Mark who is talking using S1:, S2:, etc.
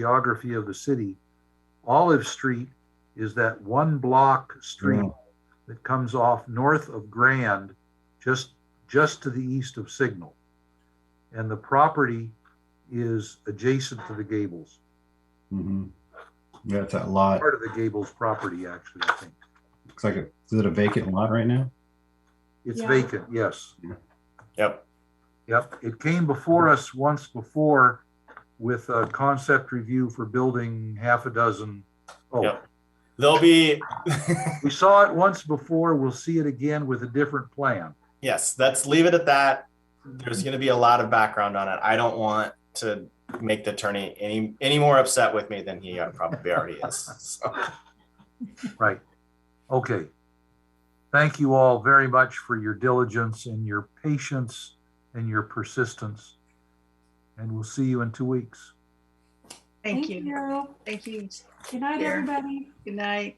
S1: geography of the city, Olive Street is that one block street that comes off north of Grand, just, just to the east of Signal. And the property is adjacent to the Gables,
S2: Mhm. Yeah, it's that lot.
S1: part of the Gables property, actually, I think.
S2: Looks like it. Is it a vacant lot right now?
S1: It's
S3: Yeah.
S1: vacant, yes.
S4: Yep.
S1: Yep, it came before us once before with a concept review for building half a dozen. Oh,
S4: Yep. There'll be,
S1: we saw it once before, we'll see it again with a different plan.
S4: yes, let's leave it at that. There's going to be a lot of background on it. I don't want to make the attorney any, any more upset with me than he probably already is. So,
S1: Right. Okay. Thank you all very much for your diligence and your patience and your persistence. And we'll see you in two weeks.
S3: Thank you. Thank you.
S5: Good night,
S3: Here.
S5: everybody.
S3: Good night.